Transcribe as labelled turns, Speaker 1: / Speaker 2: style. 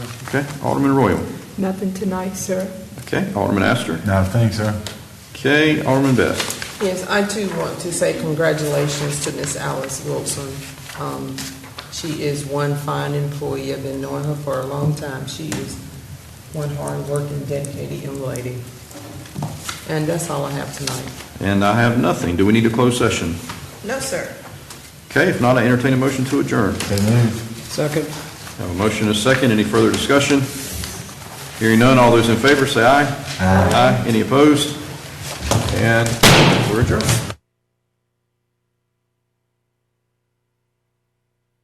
Speaker 1: Okay, Alderman Royal.
Speaker 2: Nothing tonight, sir.
Speaker 1: Okay, Alderman Astor.
Speaker 3: No, thanks, sir.
Speaker 1: Okay, Alderman Best.
Speaker 4: Yes, I too want to say congratulations to Miss Alice Wilson. Um, She is one fine employee. I've been knowing her for a long time. She is one hard-working, dedicated young lady. And that's all I have tonight.
Speaker 1: And I have nothing. Do we need a closed session?
Speaker 4: No, sir.
Speaker 1: Okay, if not, I entertain a motion to adjourn.
Speaker 3: So moved.
Speaker 4: Second.
Speaker 1: Have a motion and a second. Any further discussion? Hearing none, all those in favor say aye. Aye. Any opposed? And we're adjourned.